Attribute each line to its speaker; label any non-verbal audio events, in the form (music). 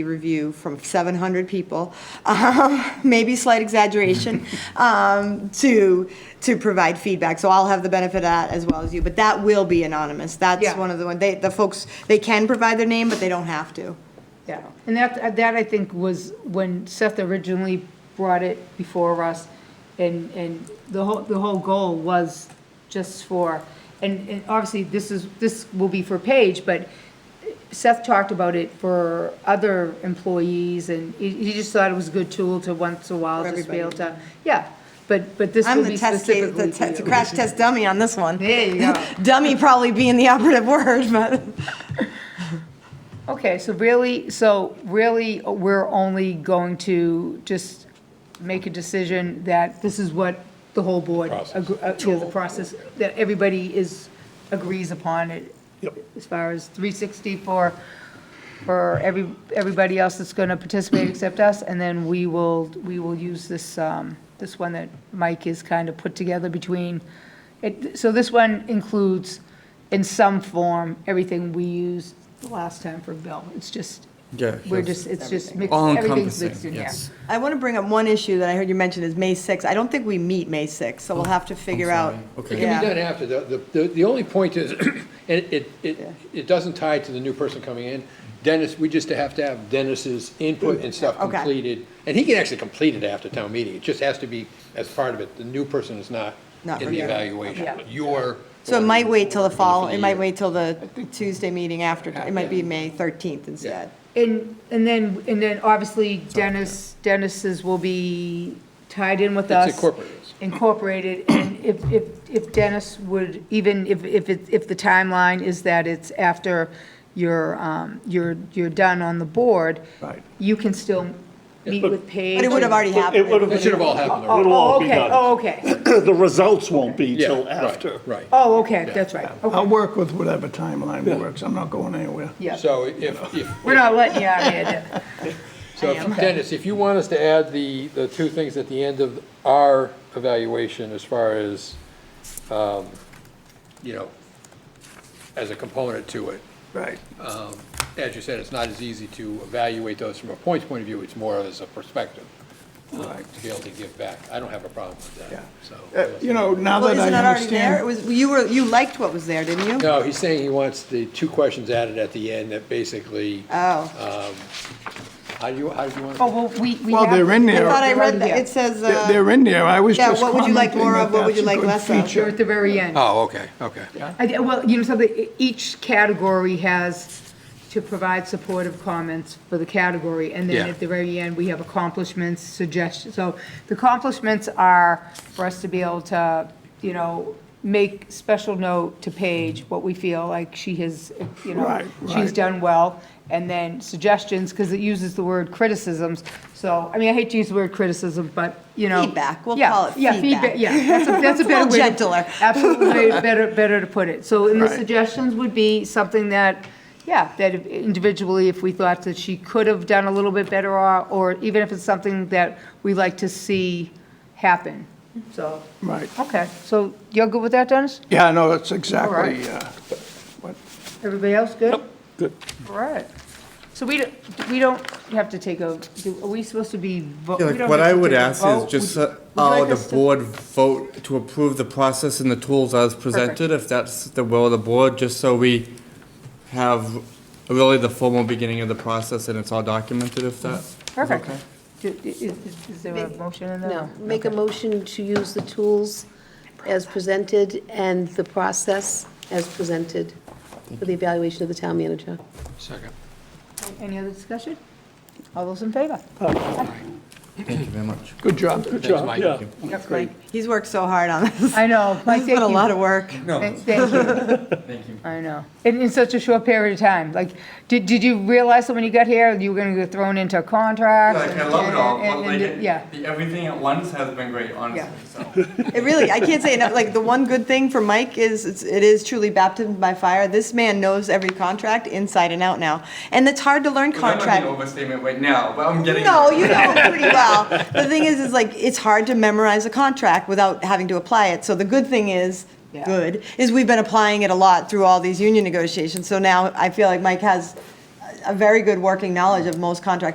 Speaker 1: review from 700 people, um, (laughs) maybe slight
Speaker 2: (laughs)
Speaker 1: exaggeration, um, to, to provide feedback. So I'll have the benefit of that as well as you, but that will be anonymous. That's
Speaker 2: Yeah.
Speaker 1: one of the, one- they, the folks, they can provide their name, but they don't have to.
Speaker 2: Yeah, and that, uh, that I think was when Seth originally brought it before us, and, and the whole, the whole goal was just for, and, and obviously, this is, this will be for Paige, but Seth talked about it for other employees, and he, he just thought it was a good tool to once in a while
Speaker 1: For
Speaker 2: just be able
Speaker 1: everybody.
Speaker 2: to, yeah, but, but this
Speaker 1: I'm
Speaker 2: will
Speaker 1: the
Speaker 2: be
Speaker 1: test, case- the
Speaker 2: specifically
Speaker 1: te- the
Speaker 2: for you.
Speaker 1: crash test dummy on this one.
Speaker 2: There you go.
Speaker 1: (laughs) Dummy probably being the operative (laughs) word, but.
Speaker 2: Okay, so really, so really, we're only going to just make a decision that this is what the whole board,
Speaker 3: Process.
Speaker 2: agr- uh, yeah, the process, that everybody is, agrees upon it.
Speaker 3: Yep.
Speaker 2: As far as 360 for, for every, everybody else that's going to participate except us, and then we will, we will use this, um, this one that Mike has kind of put together between, it, so this one includes, in some form, everything we used the last time for Bill. It's just,
Speaker 4: Yeah,
Speaker 2: we're
Speaker 4: yes.
Speaker 2: just, it's just mixed,
Speaker 4: All
Speaker 2: everything's mixed
Speaker 4: encompassing,
Speaker 2: in here.
Speaker 4: yes.
Speaker 1: I want to bring up one issue that I heard you mention is May 6th. I don't think we meet May 6th,
Speaker 2: Oh,
Speaker 1: so we'll have to figure out.
Speaker 4: sorry. Okay.
Speaker 3: It
Speaker 1: Yeah.
Speaker 3: can be done after, the, the- the, the only point is, (clears throat) and it, it, it doesn't tie to the new person coming in. Dennis, we just have to have Dennis's input and stuff
Speaker 1: Okay.
Speaker 3: completed, and he can actually complete it after town meeting, it just has to be as part of it, the new person is not
Speaker 1: Not
Speaker 3: in the
Speaker 1: reviewed.
Speaker 3: evaluation,
Speaker 2: Yeah.
Speaker 3: but you're.
Speaker 1: So it might wait till the fall, it might
Speaker 3: Or-
Speaker 1: wait till the Tuesday meeting after, it might be May 13th instead.
Speaker 2: And, and then, and then obviously Dennis, Dennis's will be tied in with us.
Speaker 3: incorporated.
Speaker 2: Incorporated, and if, if, if Dennis would, even if, if, it- if the timeline is that it's after you're, um, you're, you're done on the board.
Speaker 4: Right.
Speaker 2: You can still meet with Paige.
Speaker 1: But it would have
Speaker 2: and-
Speaker 1: already
Speaker 5: It would have.
Speaker 1: happened.
Speaker 3: It should have all happened
Speaker 2: Oh,
Speaker 3: already.
Speaker 5: It'll all
Speaker 2: oh,
Speaker 5: be
Speaker 2: okay,
Speaker 5: done.
Speaker 2: oh, okay,
Speaker 5: The results won't be
Speaker 3: Yeah,
Speaker 5: till
Speaker 3: right,
Speaker 5: after.
Speaker 3: Right.
Speaker 2: oh, okay, that's right,
Speaker 6: I'll
Speaker 2: okay,
Speaker 6: work with whatever timeline works. I'm not going anywhere.
Speaker 2: yeah.
Speaker 3: So if, if,
Speaker 2: We're not letting you out of here, Dennis.
Speaker 3: so if- Dennis, if you want us to add the, the two things at the end of our evaluation as far as, um, you know, as a component to it,
Speaker 6: Right.
Speaker 3: um, as you said, it's not as easy to evaluate those from a points point of view, it's more as a perspective. um,
Speaker 6: Right.
Speaker 3: To be able to give back. I don't have a problem with
Speaker 6: Yeah.
Speaker 3: that, so.
Speaker 6: Uh, You know, now
Speaker 1: Well,
Speaker 6: that
Speaker 1: isn't that
Speaker 6: I
Speaker 1: already there? It
Speaker 6: understand.
Speaker 1: was, you were, you liked what was there, didn't you?
Speaker 3: No, he's saying he wants the two questions added at the end that basically,
Speaker 1: Oh,
Speaker 3: how do you, how do you want?
Speaker 2: Oh, well, we, we
Speaker 6: Well,
Speaker 2: have-
Speaker 6: they're in
Speaker 1: I
Speaker 6: there.
Speaker 1: thought I read
Speaker 2: Yeah.
Speaker 1: that, it says,
Speaker 6: They're
Speaker 1: uh,
Speaker 6: they're in there. I was
Speaker 1: Yeah,
Speaker 6: just
Speaker 1: what would you like
Speaker 6: commenting
Speaker 1: more
Speaker 6: that
Speaker 1: of? What would you
Speaker 6: that's a
Speaker 1: like
Speaker 6: good
Speaker 1: less of?
Speaker 6: feature.
Speaker 2: You're at the very end.
Speaker 3: Oh, okay, okay.
Speaker 2: I thi- Well, you know something, e- each category has to provide supportive comments for the category, and then
Speaker 3: Yeah.
Speaker 2: at the very end, we have accomplishments, suggestions. So the accomplishments are for us to be able to, you know, make special note to Paige, what we feel like she has, you know,
Speaker 6: Right,
Speaker 2: she's
Speaker 6: right.
Speaker 2: done well, and then suggestions, because it uses the word criticisms. So, I mean, I hate to use the word criticism, but, you know.
Speaker 1: Feedback. We'll
Speaker 2: Yeah,
Speaker 1: call it
Speaker 2: yeah,
Speaker 1: feedback.
Speaker 2: Yeah, that's a- that's
Speaker 1: (laughs)
Speaker 2: a
Speaker 1: It's a little
Speaker 2: better way. to-
Speaker 1: gentler.
Speaker 2: Absolutely, way better, better to put it. So, and the
Speaker 6: Right.
Speaker 2: suggestions would be something that, yeah, that if- individually, if we thought that she could have done a little bit better, or, or even if it's something that we like to see happen, so.
Speaker 6: Right.
Speaker 2: Okay, so you're good with that, Dennis?
Speaker 6: Yeah, no, that's
Speaker 2: right.
Speaker 6: exactly, uh, what,
Speaker 2: Everybody else good? All right. So we, don't- we don't have to take a, do- are we supposed to be? vo-
Speaker 4: Yeah,
Speaker 2: we
Speaker 4: like,
Speaker 2: don't
Speaker 4: what
Speaker 2: have
Speaker 4: I
Speaker 2: to
Speaker 4: would
Speaker 2: take a
Speaker 4: ask
Speaker 2: vote?
Speaker 4: is just
Speaker 2: Would-
Speaker 4: uh,
Speaker 2: would you
Speaker 4: how
Speaker 2: like
Speaker 4: the
Speaker 2: us to-
Speaker 4: board vote to approve the process and the tools as presented, if that's the will of the board, just so we have really the formal beginning of the process and it's all documented, if that.
Speaker 2: Perfect. Do- i- Is, is- is there a motion in there?
Speaker 7: No, make a motion to use the tools as presented and the process as presented for the evaluation of the town manager.
Speaker 3: Second.
Speaker 2: Any other discussion? All those in favor?
Speaker 4: Thank you very much.
Speaker 6: good job.
Speaker 3: Good job,
Speaker 5: yeah.
Speaker 2: That's great.
Speaker 1: he's worked so hard on this.
Speaker 2: I know. Mike,
Speaker 1: He's put a
Speaker 2: thank you.
Speaker 1: lot of work.
Speaker 2: Thank thank you. I know. In, in such a short period of time, like, did, did you realize that when you got here, you were gonna get thrown into a contract?
Speaker 4: Like, I love it all,
Speaker 2: and-
Speaker 4: but
Speaker 2: and-
Speaker 4: like,
Speaker 2: and- Yeah,
Speaker 4: the- everything at once has been great, honestly, so.
Speaker 1: It really, I can't say enough, like, the one good thing for Mike is, it's- it is truly baptism by fire. This man knows every contract inside and out now. And it's hard to learn
Speaker 4: That might be an
Speaker 1: contract.
Speaker 4: overstatement right now, but I'm getting.
Speaker 1: No, you know him pretty well. The thing is, is like, it's hard to memorize a contract without having to apply it. So the good thing is,
Speaker 2: Yeah.
Speaker 1: good, is we've been applying it a lot through all these union negotiations. So now I feel like Mike has a very good working knowledge of most contract